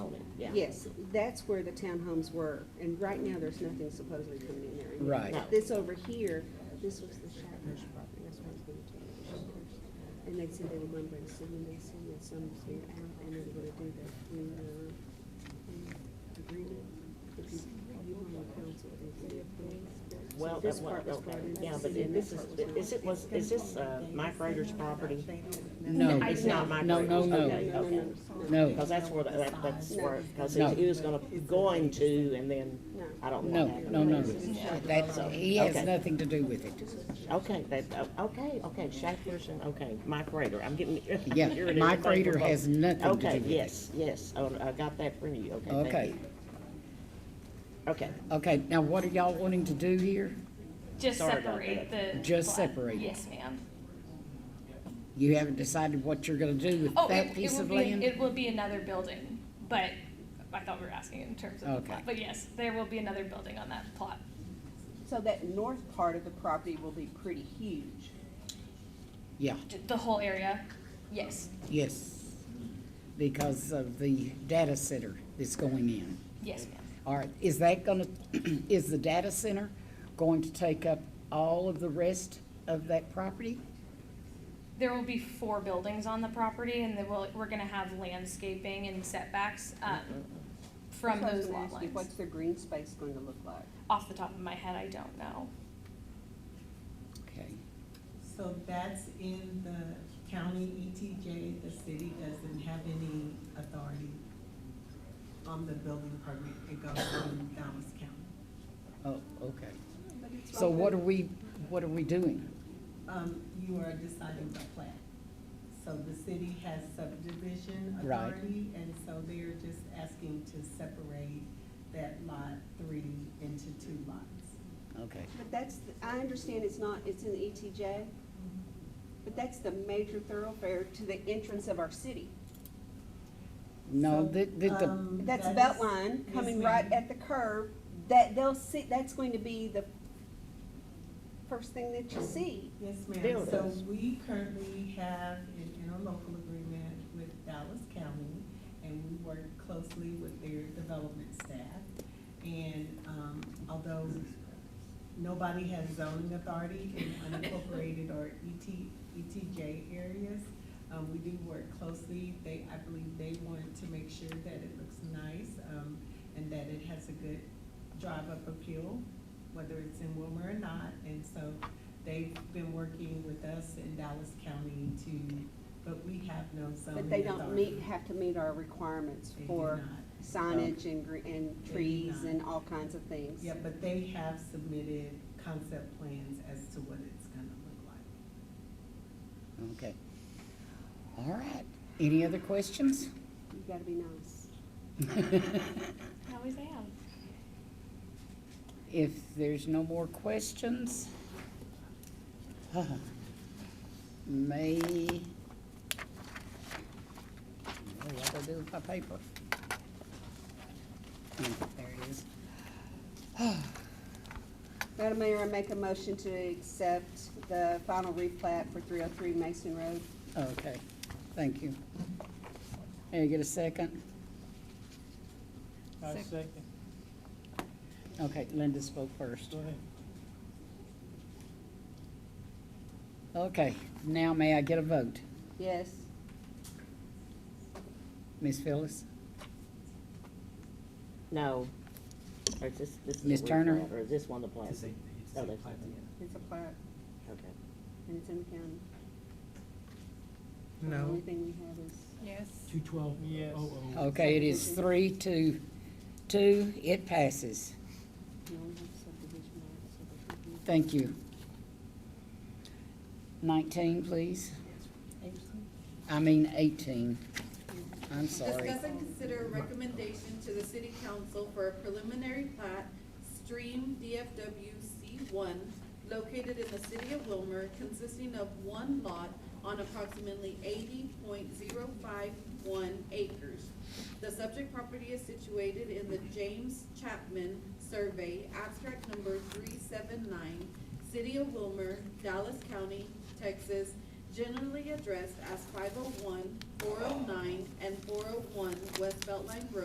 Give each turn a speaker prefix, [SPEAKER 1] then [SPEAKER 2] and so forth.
[SPEAKER 1] townhomes.
[SPEAKER 2] Yes, that's where the townhomes were, and right now, there's nothing supposedly coming in there.
[SPEAKER 3] Right. No.
[SPEAKER 2] This over here, this was the Shatner's property, that's why I was going to tell you. And they said they were gonna bring some, and they said that some was here out, and they were gonna do the, new, uh, um, agreement. If you, you were on the council, they said, please.
[SPEAKER 1] Well,
[SPEAKER 2] this
[SPEAKER 1] that one,
[SPEAKER 2] part was
[SPEAKER 1] okay,
[SPEAKER 2] brought in,
[SPEAKER 1] yeah, but
[SPEAKER 2] and
[SPEAKER 1] this
[SPEAKER 2] that
[SPEAKER 1] is,
[SPEAKER 2] part was
[SPEAKER 1] is it, was, is this, uh, Mike Rader's property?
[SPEAKER 3] No,
[SPEAKER 4] I-
[SPEAKER 1] It's not Mike
[SPEAKER 3] No,
[SPEAKER 1] Rader's?
[SPEAKER 3] no, no.
[SPEAKER 1] Okay, okay.
[SPEAKER 3] no,
[SPEAKER 1] Because that's where, the- that, that's where, because
[SPEAKER 3] No.
[SPEAKER 1] he was gonna, going to, and then, I don't
[SPEAKER 3] no,
[SPEAKER 1] want that.
[SPEAKER 3] no, no. That's, he has
[SPEAKER 1] Okay.
[SPEAKER 3] nothing to do with it.
[SPEAKER 1] Okay, that, oh, okay, okay, Shaq Pearson, okay, Mike Rader, I'm getting.
[SPEAKER 3] Yeah,
[SPEAKER 1] here it is,
[SPEAKER 3] Mike
[SPEAKER 1] I think we're
[SPEAKER 3] Rader has
[SPEAKER 1] both-
[SPEAKER 3] nothing to do
[SPEAKER 1] Okay,
[SPEAKER 3] with it.
[SPEAKER 1] yes, yes, oh, I got that from you, okay, thank
[SPEAKER 3] Okay,
[SPEAKER 1] you. Okay,
[SPEAKER 3] okay, now what are y'all wanting to do here?
[SPEAKER 4] Just
[SPEAKER 1] Sorry about
[SPEAKER 4] separate the.
[SPEAKER 3] Just
[SPEAKER 4] plat.
[SPEAKER 3] separate it.
[SPEAKER 4] Yes, ma'am.
[SPEAKER 3] You haven't decided what you're gonna do with
[SPEAKER 4] Oh,
[SPEAKER 3] that
[SPEAKER 4] it, it
[SPEAKER 3] piece
[SPEAKER 4] will
[SPEAKER 3] of
[SPEAKER 4] be,
[SPEAKER 3] land?
[SPEAKER 4] it will be another building, but I thought we were asking in terms of the
[SPEAKER 3] Okay.
[SPEAKER 4] plot. But yes, there will be another building on that plot.
[SPEAKER 5] So that north part of the property will be pretty huge.
[SPEAKER 3] Yeah,
[SPEAKER 4] J- The whole area, yes,
[SPEAKER 3] yes, because of the data center that's going in.
[SPEAKER 4] yes, ma'am.
[SPEAKER 3] All right, is that gonna, is the data center going to take up all of the rest of that property?
[SPEAKER 4] There will be four buildings on the property and then we'll, we're gonna have landscaping and setbacks,
[SPEAKER 3] Mm-hmm.
[SPEAKER 4] um, from
[SPEAKER 5] So I was
[SPEAKER 4] those
[SPEAKER 5] gonna
[SPEAKER 4] lot
[SPEAKER 5] ask you, What's
[SPEAKER 4] lines.
[SPEAKER 5] the green space going to look like?
[SPEAKER 4] Off the top of my head, I don't know.
[SPEAKER 3] Okay,
[SPEAKER 6] So that's in the county ETJ, the city doesn't have any authority on the building permit, it goes to Dallas County.
[SPEAKER 3] oh, okay. So what are we, what are we doing?
[SPEAKER 6] Um, you are deciding the plat. So the city has subdivision
[SPEAKER 3] Right.
[SPEAKER 6] authority, and so they're just asking to separate that lot three into two lots.
[SPEAKER 3] Okay,
[SPEAKER 2] But that's, the- I understand it's not, it's in the ETJ, but that's the major thoroughfare to the entrance of our city.
[SPEAKER 3] no,
[SPEAKER 6] So,
[SPEAKER 3] that, that, the-
[SPEAKER 6] um,
[SPEAKER 2] That's
[SPEAKER 6] that is-
[SPEAKER 2] Beltline
[SPEAKER 6] yes,
[SPEAKER 2] coming
[SPEAKER 6] ma'am.
[SPEAKER 2] right at the curve, that they'll see, that's going to be the first thing that you see.
[SPEAKER 6] Yes, ma'am. So
[SPEAKER 1] Buildings.
[SPEAKER 6] we currently have an interlocal agreement with Dallas County, and we work closely with their development staff. And, um, although nobody has zoning authority in unincorporated or E ET, ETJ areas, um, we do work closely. They, I believe they want to make sure that it looks nice, um, and that it has a good drive-up appeal, whether it's in Wilmer or not. And so they've been working with us in Dallas County to, but we have no zoning authority.
[SPEAKER 2] But they don't meet, have to meet our requirements
[SPEAKER 6] Oh, They do
[SPEAKER 2] for
[SPEAKER 6] not.
[SPEAKER 2] signage and, gre- and
[SPEAKER 6] do
[SPEAKER 2] trees
[SPEAKER 6] not.
[SPEAKER 2] and all kinds of things.
[SPEAKER 6] Yeah, but they have submitted concept plans as to what it's gonna look like.
[SPEAKER 3] okay. All right, any other questions?
[SPEAKER 2] You gotta be nice.
[SPEAKER 4] I always am.
[SPEAKER 3] If there's no more questions, uh, may, what do I do with my paper? Hmm, There it is.
[SPEAKER 2] Madam Mayor, I make a motion to accept the final replat for three oh three Mason Road.
[SPEAKER 3] Okay, thank you. Hey, get a second?
[SPEAKER 7] I second,
[SPEAKER 3] Okay, Linda spoke first.
[SPEAKER 7] go ahead.
[SPEAKER 3] Okay, now may I get a vote?
[SPEAKER 2] Yes,
[SPEAKER 3] Ms. Phyllis?
[SPEAKER 1] no, or is this, this is. a
[SPEAKER 3] Ms. Turner?
[SPEAKER 1] replat, Or is this one the plat? Oh, that's,
[SPEAKER 2] it's a plat,
[SPEAKER 1] okay.
[SPEAKER 2] and it's in the county. The
[SPEAKER 7] No.
[SPEAKER 2] only thing we have is.
[SPEAKER 4] Yes.
[SPEAKER 7] Two twelve, yes.
[SPEAKER 1] Oh,
[SPEAKER 3] Okay, it is three to two, it passes.
[SPEAKER 2] We only have subdivision maps, so there should be-
[SPEAKER 3] Thank you. Nineteen, please. I mean eighteen. I'm sorry.
[SPEAKER 8] Discuss and consider a recommendation to the city council for a preliminary plat, stream DFW C one, located in the city of Wilmer, consisting of one lot on approximately eighty point zero five one acres. The subject property is situated in the James Chapman Survey, abstract number three seven nine, City of Wilmer, Dallas County, Texas, oh generally addressed as 501, 409, and four oh one oh West Beltline Road.